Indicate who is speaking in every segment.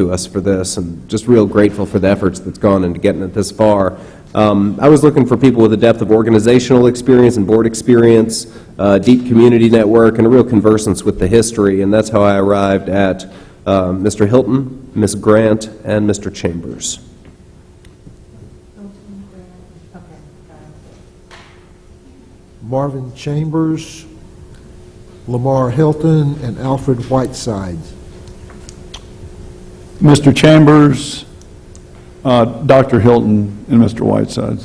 Speaker 1: to us for this, and just real grateful for the efforts that's gone into getting it this far. Um, I was looking for people with a depth of organizational experience and board experience, uh, deep community network, and a real conversance with the history, and that's how I arrived at uh, Mr. Hilton, Ms. Grant, and Mr. Chambers.
Speaker 2: Marvin Chambers, Lamar Hilton, and Alfred Whiteside.
Speaker 3: Mr. Chambers, uh, Dr. Hilton, and Mr. Whiteside.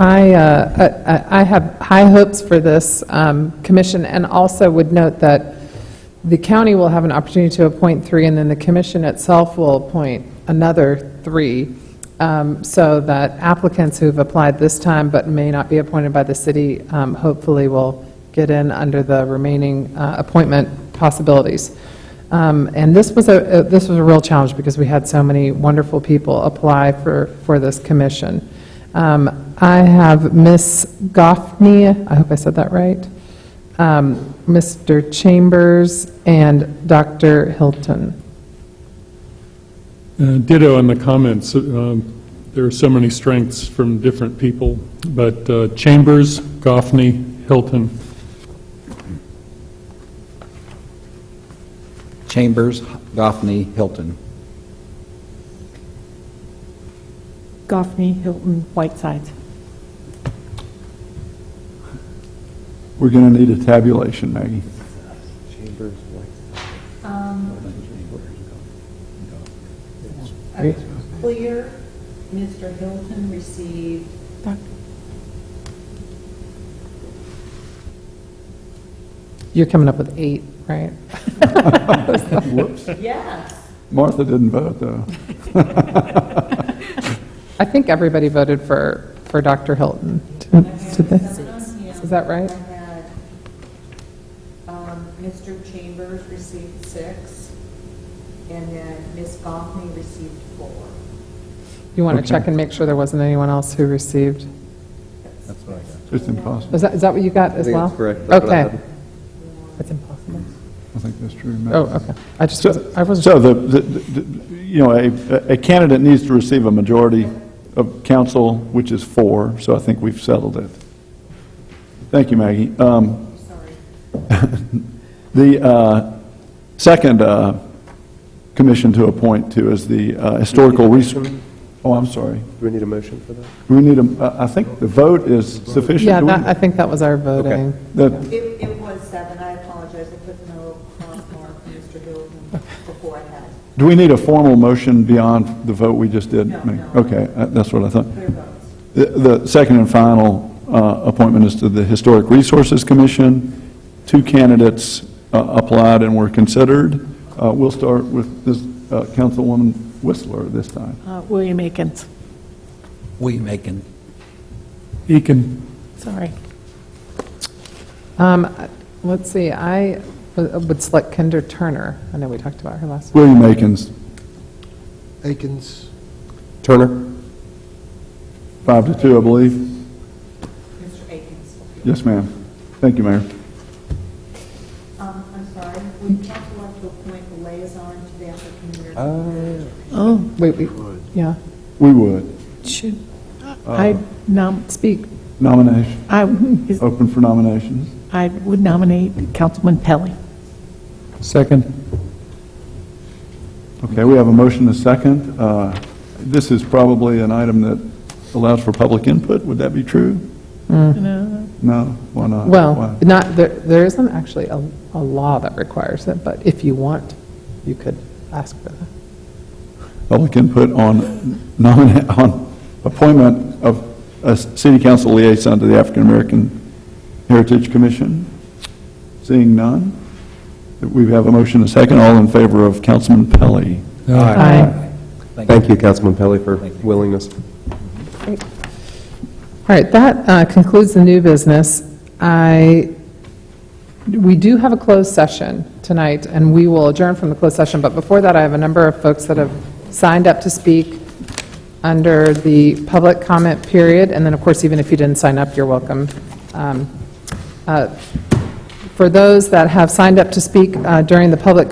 Speaker 4: I, uh, I- I I have high hopes for this um, commission, and also would note that the county will have an opportunity to appoint three, and then the commission itself will appoint another three, um, so that applicants who've applied this time but may not be appointed by the city, um, hopefully will get in under the remaining uh, appointment possibilities. Um, And this was a, uh, this was a real challenge, because we had so many wonderful people apply for, for this commission. Um, I have Ms. Goffney, I hope I said that right, um, Mr. Chambers, and Dr. Hilton.
Speaker 5: Uh, Ditto on the comments. Um, There are so many strengths from different people, but uh, Chambers, Goffney, Hilton,
Speaker 6: Chambers, Goffney, Hilton.
Speaker 7: Goffney, Hilton, Whitesides.
Speaker 3: We're going to need a tabulation, Maggie.
Speaker 8: A clear, Mr. Hilton received
Speaker 4: You're coming up with eight, right?
Speaker 3: Whoops.
Speaker 8: yes.
Speaker 3: Martha didn't vote, though.
Speaker 4: I think everybody voted for, for Dr. Hilton. Did they? Is that right?
Speaker 8: I had, um, Mr. Chambers received six, and then Ms. Goffney received four.
Speaker 4: You want to check and make sure there wasn't anyone else who received?
Speaker 3: It's impossible.
Speaker 4: Is that, is that what you got as
Speaker 1: think
Speaker 4: well?
Speaker 1: that's correct. That's what I
Speaker 4: Okay.
Speaker 1: had.
Speaker 4: It's impossible.
Speaker 3: I think that's true. Maggie.
Speaker 4: Oh, okay. I just,
Speaker 3: So,
Speaker 4: wasn't- I wasn't.
Speaker 3: so the, the- the- you know, a a candidate needs to receive a majority of council, which is four, so I think we've settled it. Thank you, Maggie. Um, The uh, second uh, commission to appoint to is the uh, Historical Res... Oh, I'm sorry.
Speaker 1: Do we need a motion for that?
Speaker 3: Do we need a, uh, I- I think the vote is sufficient.
Speaker 4: Yeah,
Speaker 3: Do we-
Speaker 4: that, I think that was our voting.
Speaker 3: that-
Speaker 8: It, it was seven, I apologize, I put no cross mark for Mr. Hilton before I had
Speaker 3: Do we need a formal motion beyond the vote we just did?
Speaker 8: No,
Speaker 3: Maggie?
Speaker 8: no.
Speaker 3: Okay, uh, that's what I thought.
Speaker 8: clear votes.
Speaker 3: The- The second and final uh, appointment is to the Historic Resources Commission. Two candidates uh, applied and were considered. Uh, We'll start with this uh, Councilwoman Whistler this time.
Speaker 7: Uh, William Akins,
Speaker 6: William Aiken.
Speaker 5: Eakin.
Speaker 7: sorry.
Speaker 4: Um, Let's see, I w- would select Kendra Turner. I know we talked about her last week.
Speaker 3: William Akins,
Speaker 2: Akins,
Speaker 1: Turner?
Speaker 3: five to two, I believe.
Speaker 8: Mr. Akins.
Speaker 3: Yes, ma'am. Thank you, Mayor.
Speaker 8: Um, I'm sorry, we talked about to appoint the liaison to the African American.
Speaker 7: Oh,
Speaker 4: Wait, we, yeah,
Speaker 3: We would.
Speaker 7: should, I nom,
Speaker 4: speak.
Speaker 3: Nomination,
Speaker 7: I, is-
Speaker 3: open for nominations.
Speaker 7: I would nominate Councilman Pelly.
Speaker 5: Second.
Speaker 3: Okay, we have a motion and a second. Uh, This is probably an item that allows for public input. Would that be true?
Speaker 7: No,
Speaker 3: No? Why not? Why?
Speaker 4: Well, not, there, there isn't actually a, a law that requires it, but if you want, you could ask for that.
Speaker 3: public input on nominate, on appointment of a city council liaison to the African American Heritage Commission? Seeing none, we have a motion, and a second, all in favor of Councilman Pelley.
Speaker 4: Aye.
Speaker 1: Thank you, Councilman Pelley, for willingness.
Speaker 4: All right, that uh, concludes the new business. I, we do have a closed session tonight, and we will adjourn from the closed session, but before that, I have a number of folks that have signed up to speak under the public comment period, and then, of course, even if you didn't sign up, you're welcome. Um, uh, For those that have signed up to speak uh, during the public